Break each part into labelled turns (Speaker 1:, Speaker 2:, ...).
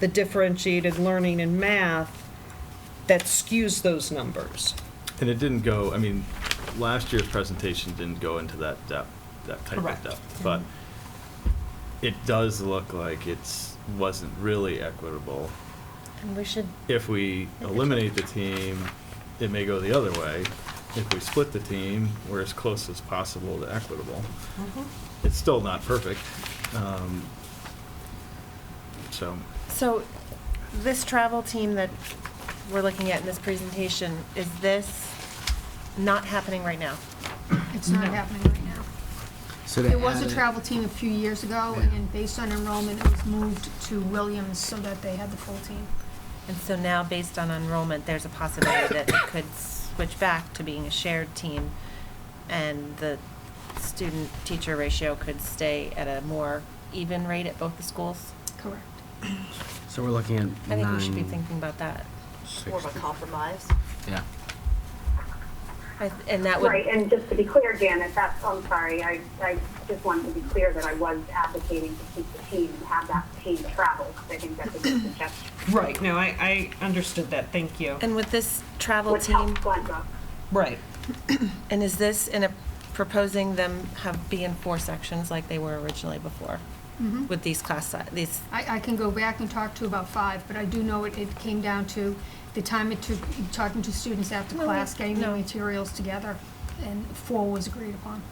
Speaker 1: the differentiated learning and math that skews those numbers.
Speaker 2: And it didn't go, I mean, last year's presentation didn't go into that depth, that type of
Speaker 1: Correct.
Speaker 2: depth. But it does look like it's, wasn't really equitable.
Speaker 3: And we should,
Speaker 2: If we eliminate the team, it may go the other way. If we split the team, we're as close as possible to equitable. It's still not perfect. um, So,
Speaker 3: so this travel team that we're looking at in this presentation, is this not happening right now?
Speaker 4: It's not happening right now.
Speaker 5: So to
Speaker 4: There was
Speaker 5: add
Speaker 4: a
Speaker 5: it-
Speaker 4: travel team a few years ago,
Speaker 5: Yeah.
Speaker 4: and based on enrollment, it was moved to Williams so that they had the full team.
Speaker 3: And so now, based on enrollment, there's a possibility that it could switch back to being a shared team, and the student-teacher ratio could stay at a more even rate at both the schools?
Speaker 4: Correct.
Speaker 5: So we're looking at
Speaker 3: I think we should be
Speaker 5: nine,
Speaker 3: thinking about that.
Speaker 5: six-
Speaker 6: more of a compromise.
Speaker 5: Yeah.
Speaker 3: I- And that would,
Speaker 7: Right, and just to be clear, Janet, that's, I'm sorry, I, I just wanted to be clear that I was advocating to keep the team and have that team travel, because I think that's a good suggestion.
Speaker 1: Right. No, I, I understood that, thank you.
Speaker 3: and with this travel
Speaker 7: Which helps
Speaker 3: team,
Speaker 7: Glenda.
Speaker 1: Right.
Speaker 3: and is this in a, proposing them have, be in four sections like they were originally before?
Speaker 6: Mm-hmm.
Speaker 3: With these class, si- these
Speaker 4: I, I can go back and talk to about five, but I do know it, it came down to the time it took, talking to students after
Speaker 3: No,
Speaker 4: class, getting the
Speaker 3: no.
Speaker 4: materials together, and four was agreed upon.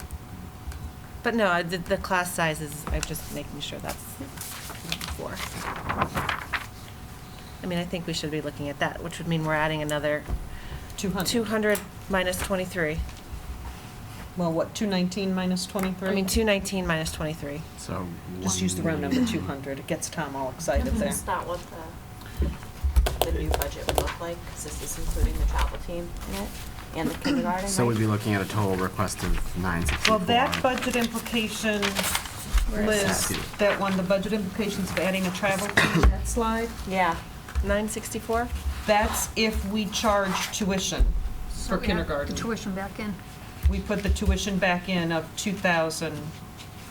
Speaker 3: But no, I- the, the class sizes, I'm just making sure that's four. I mean, I think we should be looking at that, which would mean we're adding another
Speaker 1: 200.
Speaker 3: 200 minus 23.
Speaker 1: Well, what, 219 minus 23?
Speaker 3: I mean, 219 minus 23.
Speaker 5: So.
Speaker 1: Just use the round number, 200. It gets Tom all excited there.
Speaker 6: That's not what the, the new budget would look like, because this is including the travel team in it and the kindergarten,
Speaker 5: So we'd
Speaker 6: right?
Speaker 5: be looking at a total request of nine sixty-four.
Speaker 1: Well, that budget implication list,
Speaker 5: that?
Speaker 1: that one, the budget implications of adding a travel fee, that slide,
Speaker 6: Yeah,
Speaker 3: 964?
Speaker 1: that's if we charge tuition
Speaker 4: So
Speaker 1: for
Speaker 4: we have
Speaker 1: kindergarten.
Speaker 4: The tuition back in.
Speaker 1: We put the tuition back in of 2,000,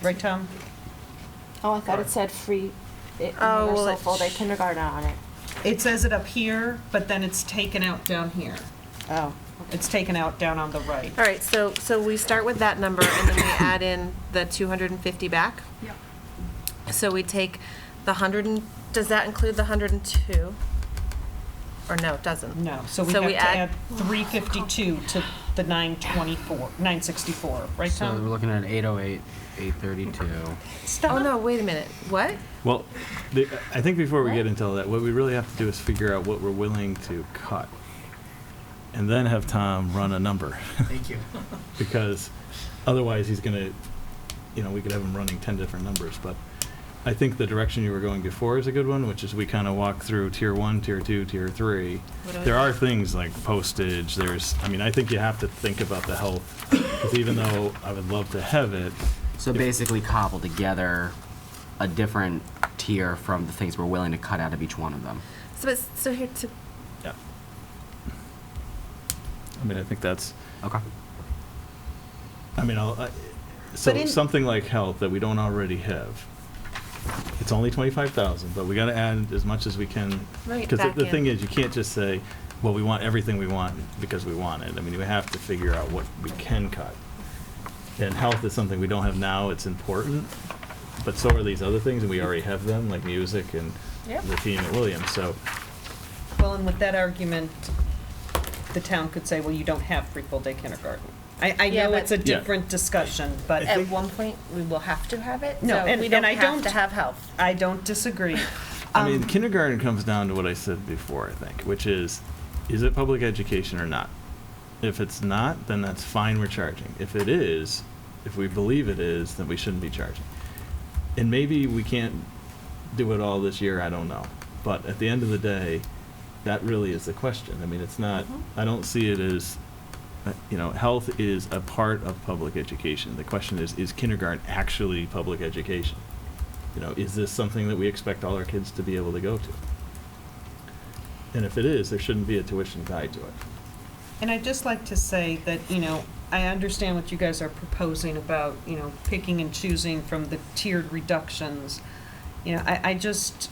Speaker 1: right, Tom?
Speaker 6: oh, I thought it said free, it,
Speaker 3: Oh,
Speaker 6: there's
Speaker 3: well,
Speaker 6: a
Speaker 3: it
Speaker 6: full-day
Speaker 3: sh-
Speaker 6: kindergarten on it.
Speaker 1: It says it up here, but then it's taken out down here.
Speaker 6: Oh.
Speaker 1: It's taken out down on the right.
Speaker 3: All right, so, so we start with that number and then we add in the 250 back.
Speaker 4: Yep.
Speaker 3: So we take the 100 and, does that include the 102? Or no, it doesn't?
Speaker 1: No, so we
Speaker 3: So
Speaker 1: have
Speaker 3: we
Speaker 1: to
Speaker 3: add-
Speaker 1: add 352 to the 924, 964, right,
Speaker 5: So we're
Speaker 1: Tom?
Speaker 5: looking at eight oh eight, eight thirty-two.
Speaker 3: Oh, no, wait a minute. What?
Speaker 2: well, the- I think before we
Speaker 3: What?
Speaker 2: get into all that, what we really have to do is figure out what we're willing to cut. And then have Tom run a number.
Speaker 5: Thank you.
Speaker 2: because otherwise he's going to, you know, we could have him running 10 different numbers. But I think the direction you were going before is a good one, which is we kind of walk through tier one, tier two, tier three.
Speaker 3: What do I
Speaker 2: There are
Speaker 3: think?
Speaker 2: things like postage, there's, I mean, I think you have to think about the health, because even though I would love to have it,
Speaker 5: So basically cobble together a different tier from the things we're willing to cut out of each one of them.
Speaker 3: So, it's- so here to,
Speaker 2: yeah. I mean, I think that's,
Speaker 5: Okay.
Speaker 2: I mean, I'll, I- so
Speaker 1: in-
Speaker 2: something like health that we don't already have. It's only twenty-five thousand, but we gotta add as much as we can.
Speaker 3: Right,
Speaker 2: Because
Speaker 3: back
Speaker 2: the thing
Speaker 3: in.
Speaker 2: is, you can't just say, well, we want everything we want because we want it. I mean, we have to figure out what we can cut. And health is something we don't have now, it's important, but so are these other things, and we already have them, like music and
Speaker 3: Yep.
Speaker 2: the team at Williams, so.
Speaker 1: Well, and with that argument, the town could say, well, you don't have free full-day kindergarten. I, I
Speaker 3: Yeah,
Speaker 1: know
Speaker 3: but-
Speaker 1: it's a
Speaker 2: Yeah.
Speaker 1: different discussion, but
Speaker 3: at one point, we will have to have it,
Speaker 1: No,
Speaker 3: so
Speaker 1: and-
Speaker 3: we
Speaker 1: and
Speaker 3: don't
Speaker 1: I
Speaker 3: have to
Speaker 1: don't-
Speaker 3: have health.
Speaker 1: I don't disagree.
Speaker 2: I
Speaker 1: Um,
Speaker 2: mean, kindergarten comes down to what I said before, I think, which is, is it public education or not? If it's not, then that's fine, we're charging. If it is, if we believe it is, then we shouldn't be charging. And maybe we can't do it all this year, I don't know. But at the end of the day, that really is the question. I mean, it's not, I don't see it as, uh, you know, health is a part of public education. The question is, is kindergarten actually public education? you know, is this something that we expect all our kids to be able to go to? And if it is, there shouldn't be a tuition tied to it.
Speaker 1: And I'd just like to say that, you know, I understand what you guys are proposing about, you know, picking and choosing from the tiered reductions. You know, I, I just,